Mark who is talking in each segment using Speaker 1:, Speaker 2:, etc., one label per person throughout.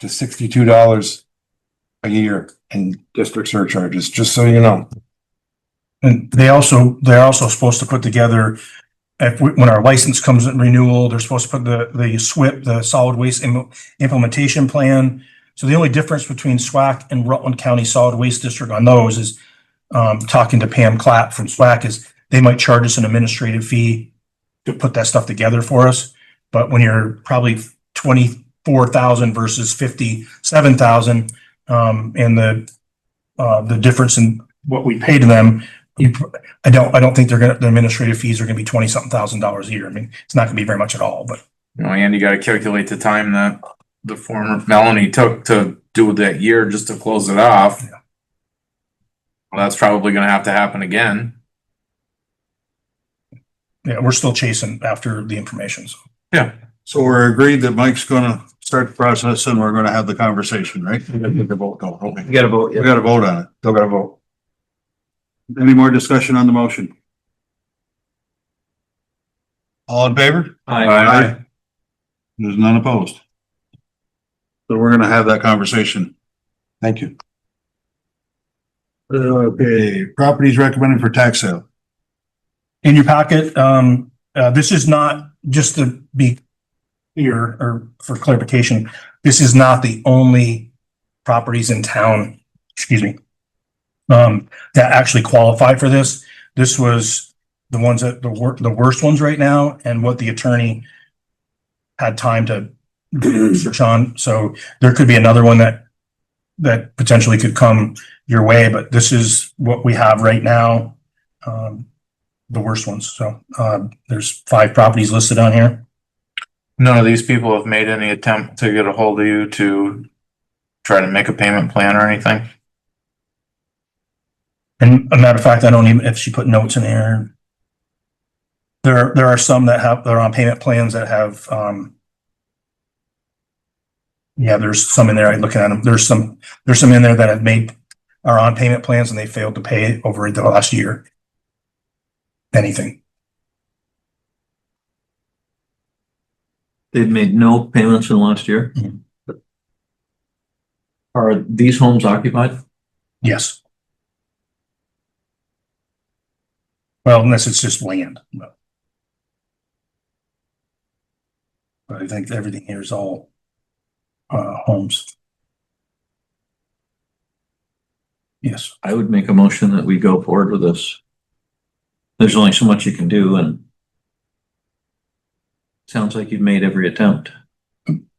Speaker 1: to sixty-two dollars a year in district surcharges, just so you know.
Speaker 2: And they also, they're also supposed to put together, if, we- when our license comes in renewal, they're supposed to put the, the SWIP, the solid waste Im- implementation plan. So the only difference between SWAC and Rutland County Solid Waste District on those is, um, talking to Pam Clapp from SWAC is they might charge us an administrative fee to put that stuff together for us. But when you're probably twenty-four thousand versus fifty-seven thousand, um, and the, uh, the difference in what we pay to them, you, pr- I don't, I don't think they're gonna, the administrative fees are gonna be twenty something thousand dollars a year. I mean, it's not gonna be very much at all, but
Speaker 3: You know, and you gotta calculate the time that the former Melanie took to do that year just to close it off.
Speaker 2: Yeah.
Speaker 3: Well, That's probably gonna have to happen again.
Speaker 2: yeah, we're still chasing after the information. So
Speaker 4: So we're agreed that Mike's gonna start the process and we're gonna have the conversation, right? We Mm-hmm. gotta
Speaker 5: gotta vote, yeah.
Speaker 4: vote on it. Still gotta vote. Any more discussion on the motion? All in favor? Aye. There's none opposed. So we're gonna have that conversation. Thank you. Okay, properties recommended for tax sale.
Speaker 2: in your packet, um, uh, this is not, just to be clear or for clarification, this is not the only properties in town, excuse me, um, that actually qualify for this. This was the ones that, the wor- the worst ones right now and what the attorney had time to research on. So there could be another one that, that potentially could come your way, but this is what we have right now. Um, the worst ones. So, um, there's five properties listed on here.
Speaker 3: None of these people have made any attempt to get a hold of you to try to make a payment plan or anything?
Speaker 2: And a matter of fact, I don't even, if she put notes in there. There, there are some that have, that are on payment plans that have, um, yeah, there's some in there, I'm looking at them, there's some, there's some in there that have made, are on payment plans and they failed to pay over the last year. Anything.
Speaker 5: They've made no payments in the last year.
Speaker 2: Mhm.
Speaker 5: Are these homes occupied?
Speaker 2: Yes. Well, unless it's just land, but. But I think everything here is all, uh, homes. Yes,
Speaker 5: I would make a motion that we go forward with this. There's only so much you can do and sounds like you've made every attempt.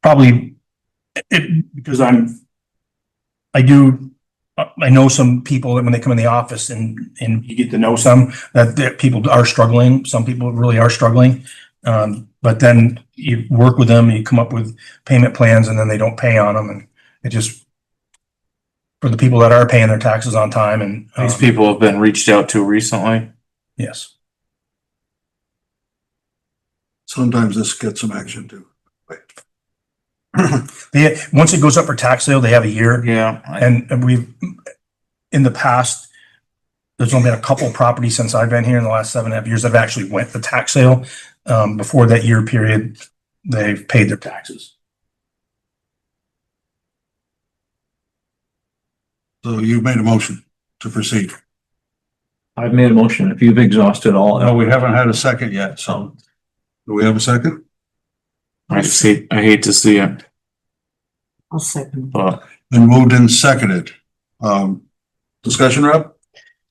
Speaker 2: probably, it, because I'm, I do, I I know some people that when they come in the office and, and you get to know some, that, that people are struggling, some people really are struggling. Um, but then you work with them, you come up with payment plans and then they don't pay on them and it just, for the people that are paying their taxes on time and, um,
Speaker 3: These people have been reached out to recently?
Speaker 2: yes.
Speaker 4: Sometimes this gets some action too.
Speaker 2: They, once it goes up for tax sale, they have a year.
Speaker 3: Yeah. I-
Speaker 2: And, and we've, in the past, there's only been a couple properties since I've been here in the last seven and a half years that have actually went the tax sale. Um, before that year period, they've paid their taxes.
Speaker 4: So you've made a motion to proceed.
Speaker 5: I've made a motion. If you've exhausted all.
Speaker 4: No, we haven't had a second yet, so.
Speaker 5: So
Speaker 4: Do we have a second?
Speaker 3: I just hate, I hate to see it,
Speaker 6: I'll second.
Speaker 3: but
Speaker 4: Been moved and seconded. Um, discussion, Rob?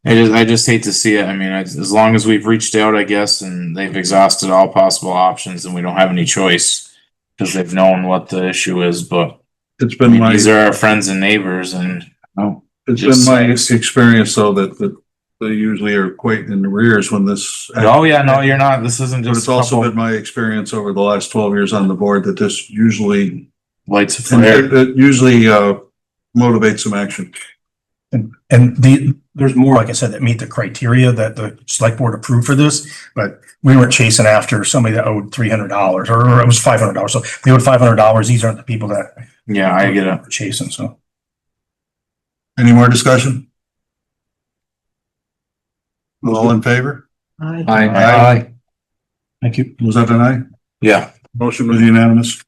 Speaker 3: I just, I just hate to see it. I mean, I- as long as we've reached out, I guess, and they've exhausted all possible options and we don't have any choice. Cause they've known what the issue is, but
Speaker 4: It's
Speaker 3: I
Speaker 4: been
Speaker 3: mean,
Speaker 4: my,
Speaker 3: these
Speaker 4: it's
Speaker 3: are our friends and neighbors and.
Speaker 4: been my experience though that, that they usually are quite in arrears when this.
Speaker 3: Oh, yeah, no, you're not. This isn't
Speaker 4: But
Speaker 3: just
Speaker 4: it's also been
Speaker 3: also
Speaker 4: my experience over the last twelve years on the board that this usually,
Speaker 3: lights of
Speaker 4: it
Speaker 3: fire.
Speaker 4: it usually, uh, motivates some action.
Speaker 2: And the, there's more, like I said, that meet the criteria that the select board approved for this, but we weren't chasing after somebody that owed three hundred dollars or it was five hundred dollars. So if they owed five hundred dollars. These aren't the people that
Speaker 3: Yeah, I get it.
Speaker 2: are chasing, so.
Speaker 4: Any more discussion? All in favor?
Speaker 6: I
Speaker 5: I,
Speaker 4: Aye.
Speaker 2: Thank you.
Speaker 4: Was that an aye?
Speaker 3: Yeah.
Speaker 4: Motion was unanimous.